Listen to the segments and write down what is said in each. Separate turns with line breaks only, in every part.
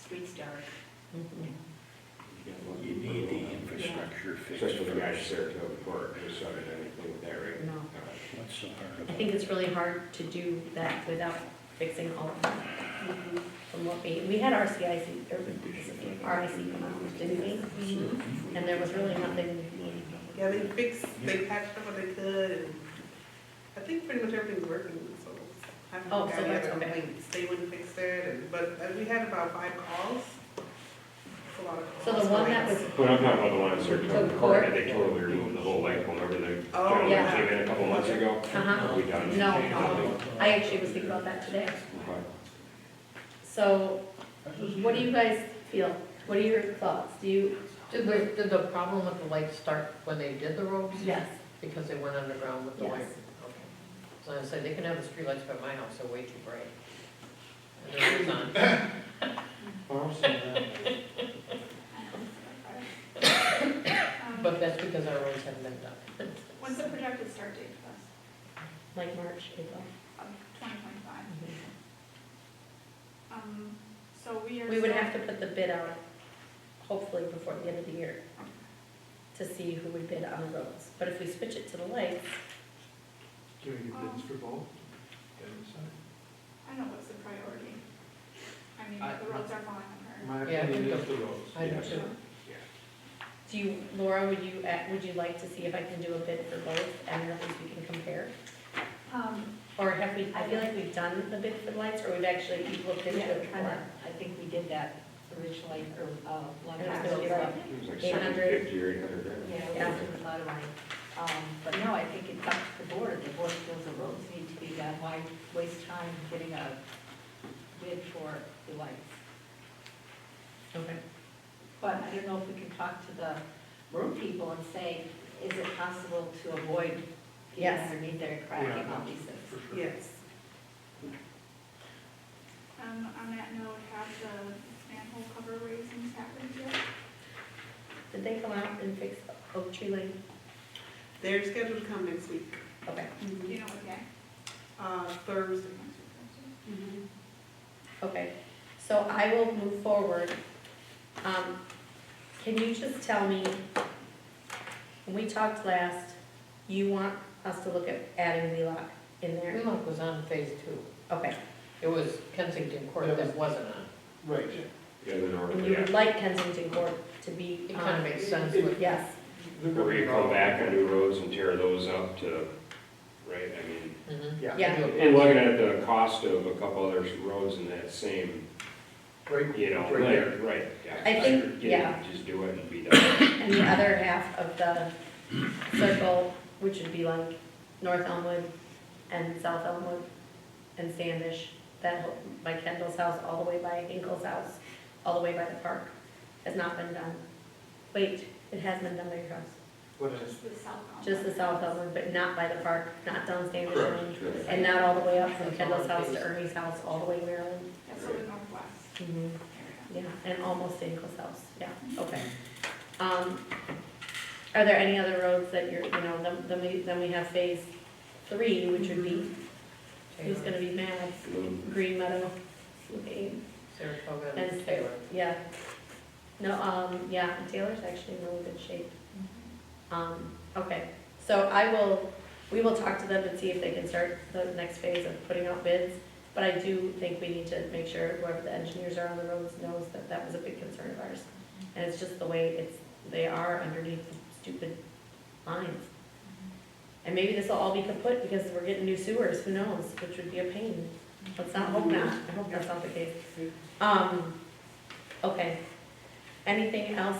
streets dark.
You need the infrastructure fixed
Especially the guys at
first.
Saratoga Park, they started anything with that, right?
No.
Uh,
What's so hard
I
about?
think it's really hard to do that without fixing all of them. From what we, we had RCIC, or RIC come out, didn't we? And there was really nothing,
Yeah, they fixed, they patched up what they could, and I think pretty much everything's working, so. I haven't
Oh, so
got any
that's
other
okay.
complaints. They wouldn't fix it, and, but uh, we had about five calls. It's a lot of
so
calls.
the one that was,
But I'm talking about the one at Saratoga
The
Park,
court?
they totally removed the whole lake, remember the
Oh,
gentleman
yeah.
came in a couple months ago?
uh-huh,
We done.
No,
changed
no.
nothing.
I actually was thinking about that today.
Okay.
So, what do you guys feel? What are your thoughts? Do you,
Did the, did the problem with the lights start when they did the roads?
yes,
Because they went underground with the
Yes.
wire? Okay. So I said, they can have the streetlights, but my house are way too bright. And they're always on.
Um,
But that's because our roads haven't been done.
When's the projected start date for us?
like March, April?
Of 2025? Um, so we are.
We would have to put the bid out, hopefully before the end of the year, to see who would bid on the roads. But if we switch it to the lights,
Can we get bids for both?
I don't know what's the priority. I mean,
I-
the roads are falling apart.
My
Yeah, I
opinion
think
is the roads.
I do
Yeah.
too.
do you, Laura, would you, act- would you like to see if I can do a bid for both, and at least we can compare?
Um,
Or have we, I feel like we've done the bid for the lights, or we've actually looked into
yeah,
it
kind of,
before?
I think we did that originally, or, uh, long
And it's
time
gonna be
ago.
like-
It was like
800.
750 or 800 grand.
Yeah, we
Yeah.
did a lot of money. Um, but no, I think it's up to the board, the board feels the roads need to be done, why waste time getting a bid for the lights?
Okay.
But I don't know if we can talk to the road people and say, is it possible to avoid getting
Yes.
underneath there and cracking all these things?
For sure.
Yes.
Um, on that note, have the manhole cover raisings happened yet?
Did they come out and fix Oak Tree Lane?
They're scheduled to come next week,
Okay,
Do you know what day?
uh, Thursday.
Mm-hmm. okay. So I will move forward. Um, Can you just tell me, when we talked last, you want us to look at adding Wheelock in there?
Greenlock was on phase two.
Mm-hmm.
Okay,
It was Kensington Court that wasn't on.
Right.
Yeah, the north,
and you
yeah.
would like Kensington Court to be
It kind of
on?
makes sense with,
Yes,
Where you come back on new roads and tear those up to, right, I mean.
Mhm.
Yeah.
And looking at the cost of a couple other roads in that same,
Right.
you know,
Right there.
like, right. yeah.
I think- yeah.
Just do it and be done.
and the other half of the circle, which would be like North Elmwood and South Elmwood and Standish, that, whole- by Kendall's house, all the way by Hinkle's house, all the way by the park, has not been done. Wait, it has been done by your house,
What is?
Just the south elm.
just the South Elmwood, but not by the park, not down Standish
Correct.
Lane, and not all the way up from
That's
Kendall's
all it
house to
is.
Ernie's house, all the way to Maryland.
That's sort of northwest
Mm-hmm.
area.
Yeah, and almost to Nichols House, yeah, okay. Um, Are there any other roads that you're, you know, then, then we, then we have phase three, which would be, who's gonna be mad? Green Meadow, okay,
Saratoga
And-
and Taylor.
yeah. No, um, yeah, and Taylor's actually in really good shape. Um, okay, so I will, we will talk to them and see if they can start the next phase of putting out bids. But I do think we need to make sure whoever the engineers are on the roads knows that that was a big concern of ours. And it's just the way it's, they are underneath the stupid lines. And maybe this will all be kaput because we're getting new sewers, who knows, which would be a pain. Let's not hope not, I hope that's not the case. Um, okay. Anything else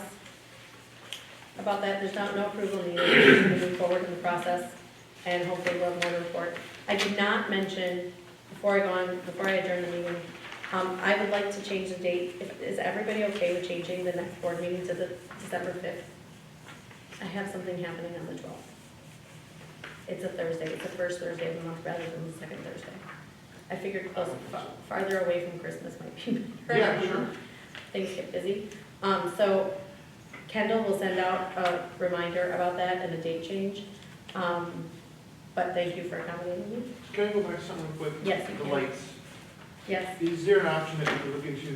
about that? There's not, no approval needed, we're gonna move forward in the process, and hopefully we'll have more to report. I did not mention, before I go on, before I adjourn the meeting, um, I would like to change the date. If- Is everybody okay with changing the next board meeting to the December fifth? I have something happening on the twelfth. It's a Thursday, it's the first Thursday of the month rather than the second Thursday. I figured close, fa- farther away from Christmas might be better.
Yeah, sure.
Things get busy. Um, so Kendall will send out a reminder about that and the date change. Um, but thank you for accommodating me.
Can I go back to something quick?
Yes, you
The
can.
lights.
Yes?
Is there an option that we could look into